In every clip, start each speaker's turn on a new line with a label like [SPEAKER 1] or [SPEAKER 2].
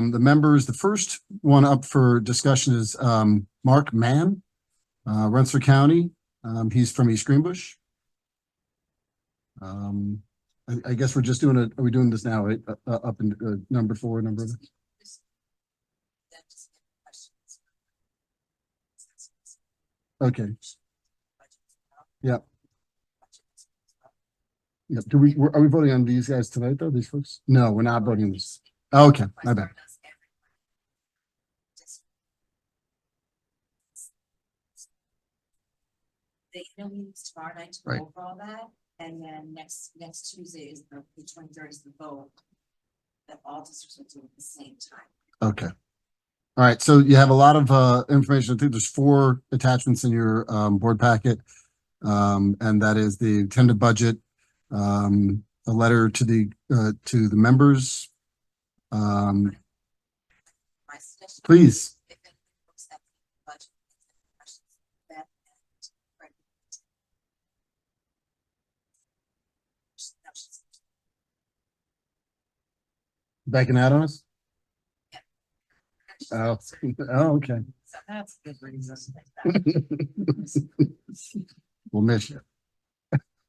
[SPEAKER 1] um, the members, the first one up for discussion is, um, Mark Mann, uh, Rensselaer County. Um, he's from East Greenbush. Um, I, I guess we're just doing it, are we doing this now, right? Uh, uh, up in, uh, number four, number, okay. Yep. Yep. Do we, are we voting on these guys tonight though, these folks? No, we're not voting on these. Okay, my bad.
[SPEAKER 2] The interview's tomorrow night to
[SPEAKER 1] Right.
[SPEAKER 2] go over all that, and then next, next Tuesday is the, the twenty-third is the vote. That all districts will do at the same time.
[SPEAKER 1] Okay. All right, so you have a lot of uh information. I think there's four attachments in your um board packet. Um, and that is the tentative budget, um, a letter to the uh to the members. Um,
[SPEAKER 2] My suggestion.
[SPEAKER 1] please,
[SPEAKER 2] if anyone looks at the budget, questions, that and right.
[SPEAKER 1] backing out on us? Oh, oh, okay.
[SPEAKER 2] So that's a good reason.
[SPEAKER 1] We'll miss you.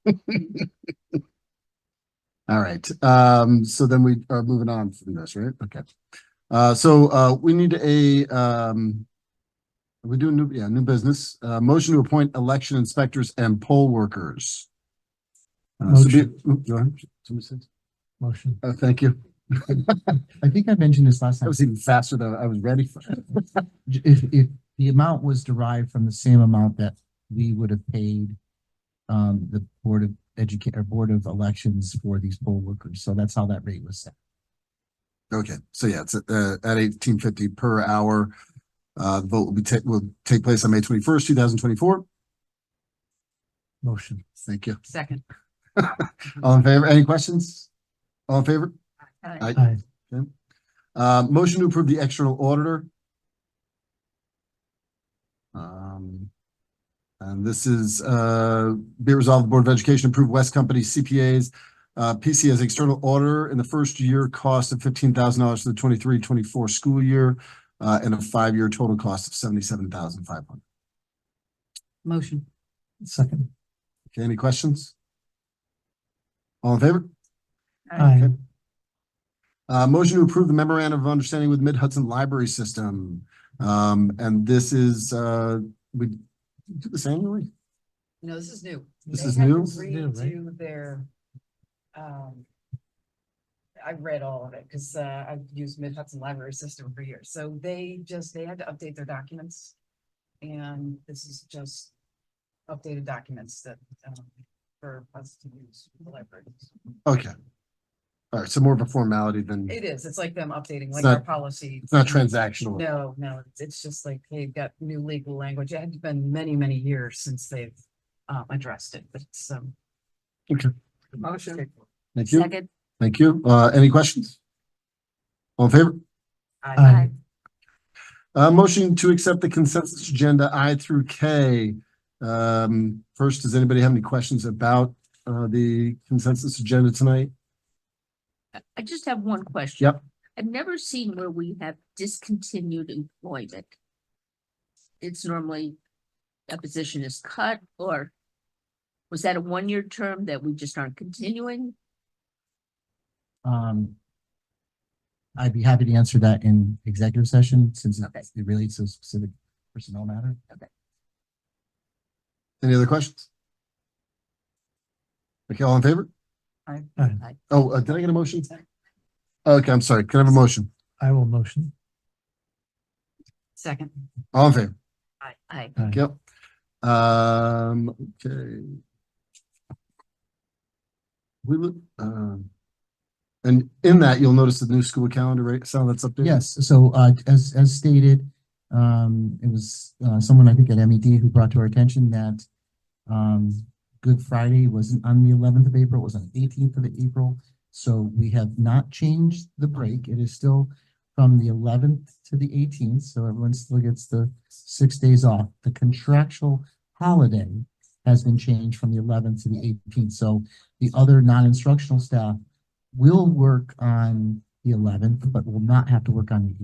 [SPEAKER 1] All right, um, so then we are moving on from this, right? Okay. Uh, so, uh, we need a, um, are we doing new, yeah, new business, uh, motion to appoint election inspectors and poll workers. Uh, so be- oop, go ahead. Somebody said-
[SPEAKER 3] Motion.
[SPEAKER 1] Uh, thank you.
[SPEAKER 3] I think I mentioned this last
[SPEAKER 1] That
[SPEAKER 3] time.
[SPEAKER 1] was even faster than I was ready for.
[SPEAKER 3] J- If, if the amount was derived from the same amount that we would have paid um, the Board of Educate, or Board of Elections for these poll workers. So that's how that rate was set.
[SPEAKER 1] Okay, so yeah, it's uh at eighteen fifty per hour. Uh, the vote will be ta- will take place on May twenty first, two thousand twenty four.
[SPEAKER 3] Motion.
[SPEAKER 1] Thank you.
[SPEAKER 2] Second.
[SPEAKER 1] All in favor? Any questions? All in favor? Aye.
[SPEAKER 3] Aye.
[SPEAKER 1] Uh, motion to approve the external auditor. Um, and this is, uh, be resolved, the Board of Education approve West Company CPAs, uh, PC as external auditor in the first year cost of fifteen thousand dollars for the 23-24 school year, uh, and a five-year total cost of seventy-seven thousand five hundred.
[SPEAKER 2] Motion.
[SPEAKER 3] Second.
[SPEAKER 1] Okay, any questions? All in favor?
[SPEAKER 3] Aye.
[SPEAKER 1] Uh, motion to approve the memorandum of understanding with Mid Hudson Library System. Um, and this is, uh, we do this annually?
[SPEAKER 2] No, this is new.
[SPEAKER 1] This
[SPEAKER 2] They
[SPEAKER 1] is
[SPEAKER 2] had to
[SPEAKER 1] new?
[SPEAKER 3] is new, right?
[SPEAKER 2] Redo their, um. I read all of it, cause uh, I've used Mid Hudson Library System for years, so they just, they had to update their documents. And this is just updated documents that, um, for us to use for the library.
[SPEAKER 1] Okay. All right, so more of a formality than,
[SPEAKER 2] It is, it's like them updating,
[SPEAKER 1] It's
[SPEAKER 2] like our
[SPEAKER 1] not-
[SPEAKER 2] policy.
[SPEAKER 1] it's not transactional.
[SPEAKER 2] No, no, it's- it's just like they've got new legal language. It had been many, many years since they've um addressed it, but it's um.
[SPEAKER 1] Okay.
[SPEAKER 2] Motion.
[SPEAKER 1] Thank you, thank you. Uh, any questions? All in favor?
[SPEAKER 3] Aye.
[SPEAKER 1] Uh, motion to accept the consensus agenda I through K. Um, first, does anybody have any questions about, uh, the consensus agenda tonight?
[SPEAKER 4] I just have one question.
[SPEAKER 1] Yep.
[SPEAKER 4] I've never seen where we have discontinued employment. It's normally a position is cut or was that a one-year term that we just aren't continuing?
[SPEAKER 3] Um, I'd be happy to answer that in executive session since it it relates to a specific personnel matter.
[SPEAKER 1] Any other questions? Okay, all in favor?
[SPEAKER 2] Aye.
[SPEAKER 3] Aye.
[SPEAKER 4] Aye.
[SPEAKER 1] Oh, uh, did I get a motion? Okay, I'm sorry. Can I have a motion?
[SPEAKER 3] I will motion.
[SPEAKER 2] Second.
[SPEAKER 1] All in favor?
[SPEAKER 4] I, I,
[SPEAKER 1] Yep. Um, okay. We would, um, and in that, you'll notice the new school calendar, right? Sound that's updated?
[SPEAKER 3] Yes, so uh, as, as stated, um, it was uh, someone I think at MED who brought to our attention that um, Good Friday wasn't on the eleventh of April, it was on the eighteenth of April. So we have not changed the break. It is still from the eleventh to the eighteenth, so everyone still gets the six days off. The contractual holiday has been changed from the eleventh to the eighteenth, so the other non-instructional staff will work on the eleventh, but will not have to work on the